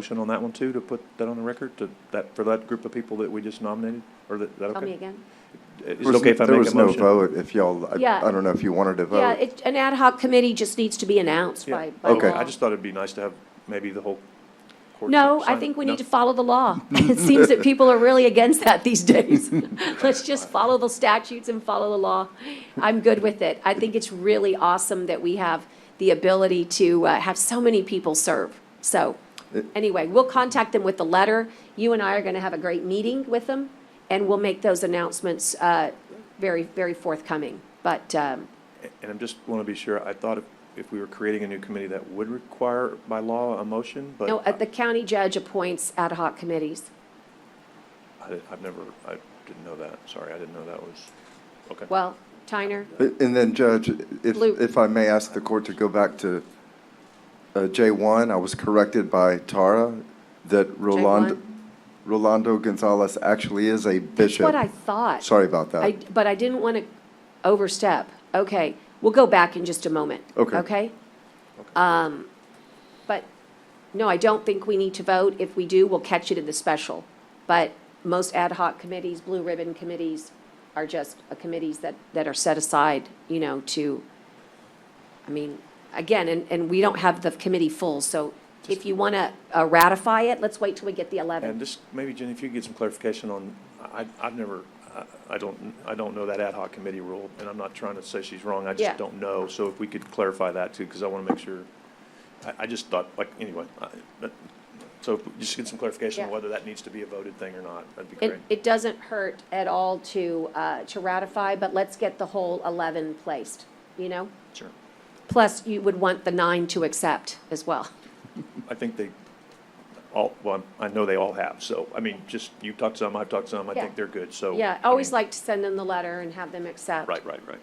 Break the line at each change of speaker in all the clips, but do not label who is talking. Motion on that one too, to put that on the record, to, that, for that group of people that we just nominated, or that, that
Tell
okay?
me again.
Is
There
it
was-
okay if I
There
make a
was no
motion?
vote, if y'all, I,
Yeah.
I don't know if you wanted to
Yeah,
vote.
it, an ad hoc committee just needs to be announced
Yeah.
by, by
Okay.
law.
I just thought it'd be nice to have maybe the whole court.
No, I
sign-
think we
No?
need to follow the law. It seems that people are really against that these days. Let's just follow the statutes and follow the law. I'm good with it. I think it's really awesome that we have the ability to uh, have so many people serve. So, anyway, we'll contact them with the letter. You and I are going to have a great meeting with them, and we'll make those announcements uh, very, very forthcoming. But, um,
And I just want to be sure, I thought if, if we were creating a new committee, that would require by law a motion, but
no, uh, the county judge appoints ad hoc committees.
I- I, have never, I didn't know that, sorry, I didn't know that was, okay.
Well, Tyner,
A- And then Judge, if,
Lou.
if I may ask the court to go back to uh, J1, I was corrected by Tara that Rolando, Rolando Gonzalez actually is a
that's
bishop.
what I thought.
Sorry about that.
I, but I didn't want to overstep. Okay, we'll go back in just a moment.
Okay.
Okay? Um, but, no, I don't think we need to vote. If we do, we'll catch it in the special. But most ad hoc committees, blue ribbon committees, are just uh, committees that, that are set aside, you know, to, I mean, again, and, and we don't have the committee full, so if you want to ratify it, let's wait till we get the 11th.
And just, maybe Jenny, if you could get some clarification on, I, I've never, I- I don't, I don't know that ad hoc committee rule, and I'm not trying to say she's wrong, I
Yeah.
just don't know. So if we could clarify that too, because I want to make sure, I, I just thought, like, anyway, I, that- so if we just get some clarification on
Yeah.
whether that needs to be a voted thing or not, that'd be
It,
great.
it doesn't hurt at all to, uh, to ratify, but let's get the whole 11 placed, you know?
Sure.
Plus, you would want the nine to accept as well.
I think they all, well, I know they all have, so, I mean, just, you've talked some, I've talked some, I
Yeah.
think they're good, so.
Yeah, I always
Oh, mean,
like to send them the letter and have them accept.
Right, right, right.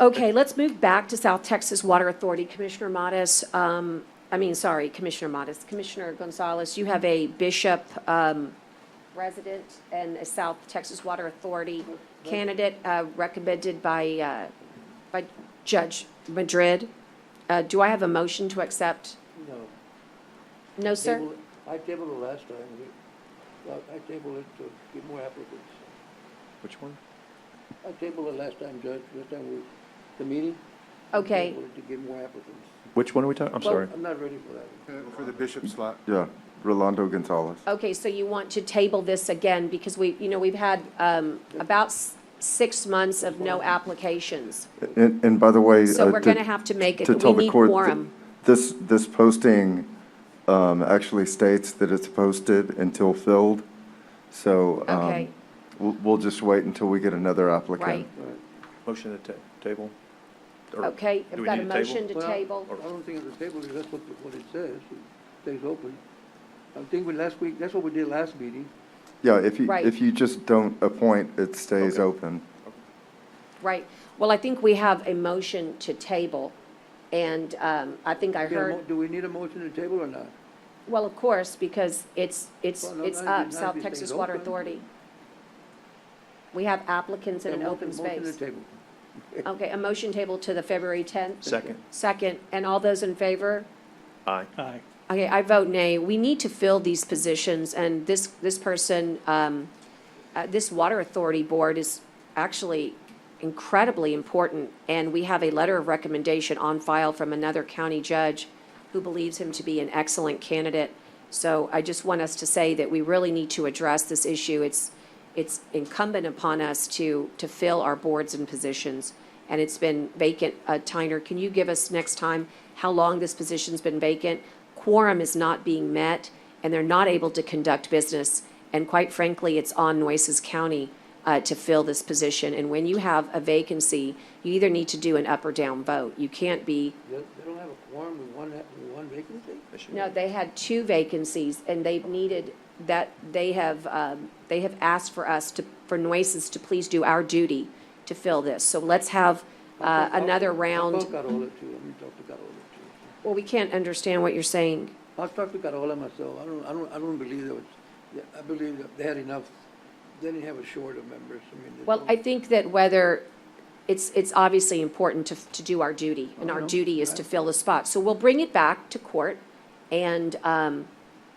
Okay, let's move back to South Texas Water Authority. Commissioner Modis, um, I mean, sorry, Commissioner Modis, Commissioner Gonzalez, you have a Bishop, um, resident and a South Texas Water Authority candidate, uh, recommended by, uh, by Judge Madrid. Uh, do I have a motion to accept?
No.
No, sir?
Table- I tabled it last time. We- well, I tabled it to get more applicants.
Which one?
I tabled it last time, Judge, this time we, the meeting. I
Okay.
tabled it To get more applicants.
Which one are we talking, I'm sorry.
I'm not ready for that. one.
For the bishop slot.
Yeah, Rolando Gonzalez.
Okay, so you want to table this again because we, you know, we've had, um, about s- six months of no applications.
And, and by the way.
So
uh,
we're
to-
gonna have to make it,
to tell
we
the
need
court, th-
quorum.
This, this posting um, actually states that it's posted until filled, so um,
Okay.
we'll, we'll just wait until we get another applicant.
Right.
All right.
Motion to ta- table? Or
Okay,
do
I've
we
got a
need to table?
motion to
Well,
table.
I don't think it's a table, that's what, what it says, it stays open. I think we, last week, that's what we did last meeting.
Yeah, if you,
Right.
if you just don't appoint, it stays open.
Right. Well, I think we have a motion to table, and um, I think I
Get a mo-
heard,
Do we need a motion to table or not?
well, of course, because it's, it's,
Well, no,
it's
now you-
up,
now
South
you say
Texas
it's
Water
open.
Authority. We have applicants in an
Yeah,
open
motion- motion to
space.
table.
Okay, a motion table to the February 10th?
Second,
Second, and all those in favor?
aye.
Okay, I vote nay. We need to fill these positions, and this, this person, um, uh, this Water Authority Board is actually incredibly important, and we have a letter of recommendation on file from another county judge who believes him to be an excellent candidate. So I just want us to say that we really need to address this issue. It's, it's incumbent upon us to, to fill our boards and positions, and it's been vacant. Uh, Tyner, can you give us next time how long this position's been vacant? Quorum is not being met, and they're not able to conduct business. And quite frankly, it's on Nueces County uh, to fill this position. And when you have a vacancy, you either need to do an up or down vote. You can't be,
They they don't have a quorum with one, with one vacancy?
They should.
no, they had two vacancies, and they've needed that, they have, um, they have asked for us to, for Nueces to please do our duty to fill this. So let's have uh,
I'll-
another
I'll- I'll
round.
call Carola too, I'm gonna talk to Carola too.
Well, we can't understand what you're saying.
I'll talk to Carola myself, I don't, I don't, I don't believe there was, yeah, I believe that they had enough, they didn't have a short of members, I mean. there's
Well,
no-
I think that whether, it's, it's obviously important to, to do our duty, and our
Uh-huh.
duty is to fill the spot. So we'll bring it back to court, and um,